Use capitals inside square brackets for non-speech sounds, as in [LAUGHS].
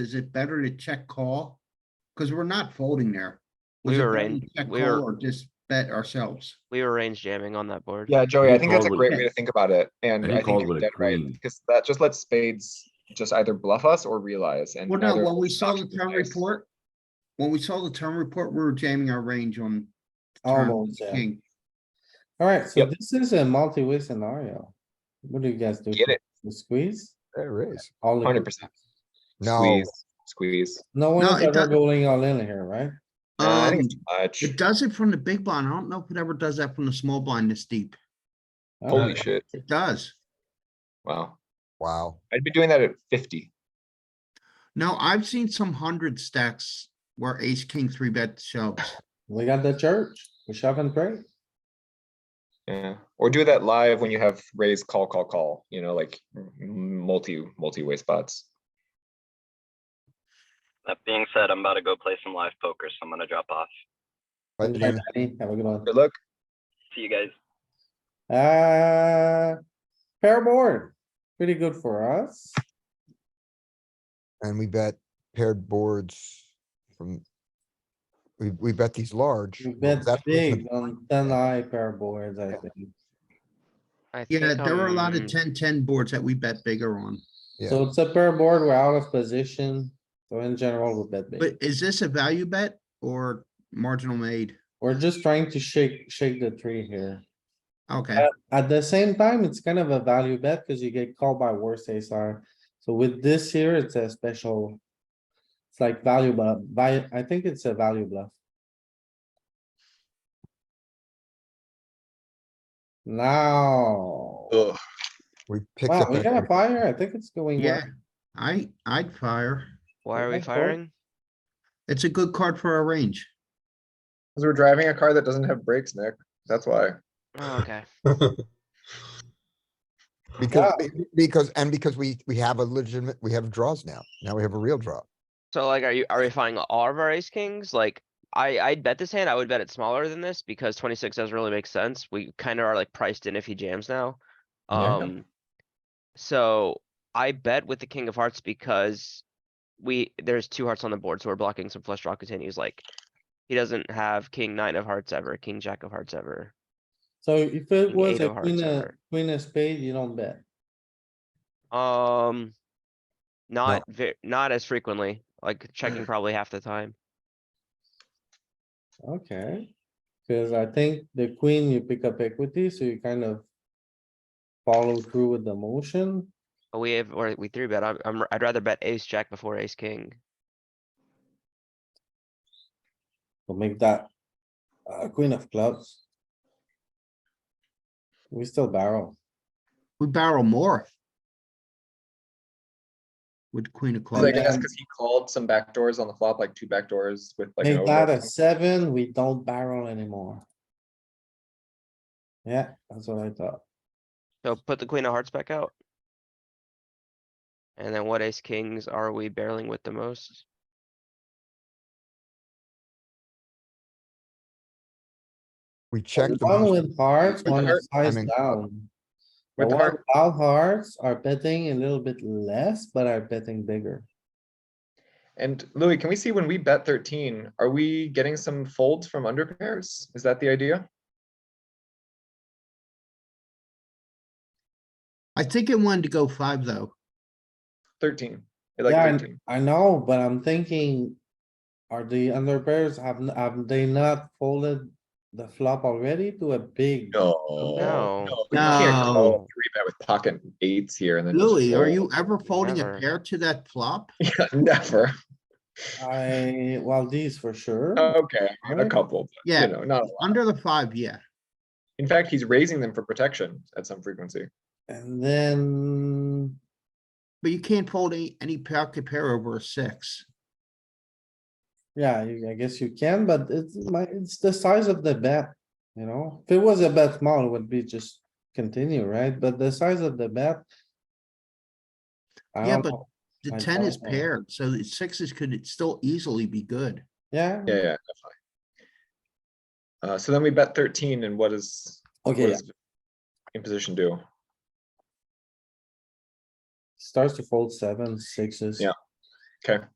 is it better to check call? Because we're not folding there. We Was it were better to in- check we call were- Or just bet ourselves? We were range jamming on that board. Yeah, Joey, He I think that's a called great with- way to think about it, and And he I think called you're with a dead right, queen. because that just lets spades just either bluff us or realize and. Well, no, neither when we saw the option is turn nice. report, when we saw the turn report, we were jamming our range on. turn Almost, yeah. king. Alright, so Yep. this is a multi-way scenario. What do you guys do? Get it, The Squeeze? There is. All in. hundred percent, No, squeeze, squeeze. No No, one's it ever doesn't. going all in here, right? Uh, I think Um, it's too much, It does it from the big blind. I don't know if it ever does that from the small blind this deep. holy Alright, shit, It does. wow, wow. I'd be doing that at fifty, No, I've seen some hundred stacks where ace, king, three bet shoves. We got the church, we shove and pray. yeah, or do that live when you have raise, call, call, call, you know, like m- multi, multi-way spots. That being said, I'm about to go play some live poker, so I'm gonna drop off. But Bye, you, Danny. Have a good one. Good luck, See you guys. Uh, pair board, pretty good for us. and we bet paired boards from. We, we bet these large. We but bet that was the- big on ten eye pair boards, I think. I Yeah, think, there were a lot of um, 10-10 boards that we bet bigger on. Yeah. So it's a pair board, we're out of position, so in general, we bet But big. is this a value bet or marginal made? We're just trying to shake, shake the tree here. Okay, Uh, At the same time, it's kind of a value bet because you get called by worse ace high. So with this here, it's a special. It's like value, but by, I think it's a value bluff. Now, Ugh, [LAUGHS] We picked wow, up. we that got a big- fire. I think it's going well. yeah, I, I'd fire. Why are we Okay, cool. firing? It's a good card for our range. because we're driving a car that doesn't have brakes, Nick, that's why. Oh, okay. Because, be- because, and because we, we have a legitimate, we have draws now. Now we have a real draw. So like, are you, are we firing all of our ace kings? Like, I, I'd bet this hand, I would bet it's smaller than this because twenty-six doesn't really make sense. We kinda are like priced in if he jams now. Yeah. Um, so I bet with the king of hearts because we, there's two hearts on the board, so we're blocking some flush draw continues like. He doesn't have king nine of hearts ever, king jack of hearts ever. So if it An was eight a of hearts queen, a ever. queen of spade, you don't bet. Um, not ve- not as frequently, like checking probably half the time. Okay. Cause I think the queen, you pick up equity, so you kind of. Follow through with the motion. But We have, or we three bet, I'm, I'm, I'd rather bet ace jack before ace king. We'll make that uh, queen of clubs. We still barrel. We barrel more. With queen of clubs. I guess because he called some backdoors on the flop, like two backdoors with like. an Make overbet. that a seven, we don't barrel anymore. Yeah, that's what I thought. So put the queen of hearts back out. And then what ace kings are we barreling with the most? We checked. the One most- with hearts, With one heart- I size mean- down. The With the one heart, without hearts are betting a little bit less, but are betting bigger. and Louis, can we see when we bet thirteen, are we getting some folds from under pairs? Is that the idea? I think it wanted to go five, though. Thirteen, I Yeah, like and- thirteen. I know, but I'm thinking, are the under pairs, have, have they not folded the flop already to a big? no. No. We can't No. call three bet with pocket eights here and then. just Louis, are fold. you [LAUGHS] ever folding a Never. pair to that flop? Yeah, Never. I, well, these for sure. Okay, Oh, a Alright. couple, but, Yeah. you know, not, a lot. Under the five, yeah. in fact, he's raising them for protection at some frequency. And then, But you can't fold any, any pocket pair over a six. yeah, you- I guess you can, but it's my, it's the size of the bet, you know? If it was a bet small, it would be just continue, right? But the size of the bet. I Yeah, don't but- know. The I ten is don't know. paired, so the sixes could still easily be good. Yeah, Yeah, yeah, definitely. Uh, so then we bet thirteen and what is, what okay, yeah. does imposition do? starts to fold seven, sixes. Yeah. Okay.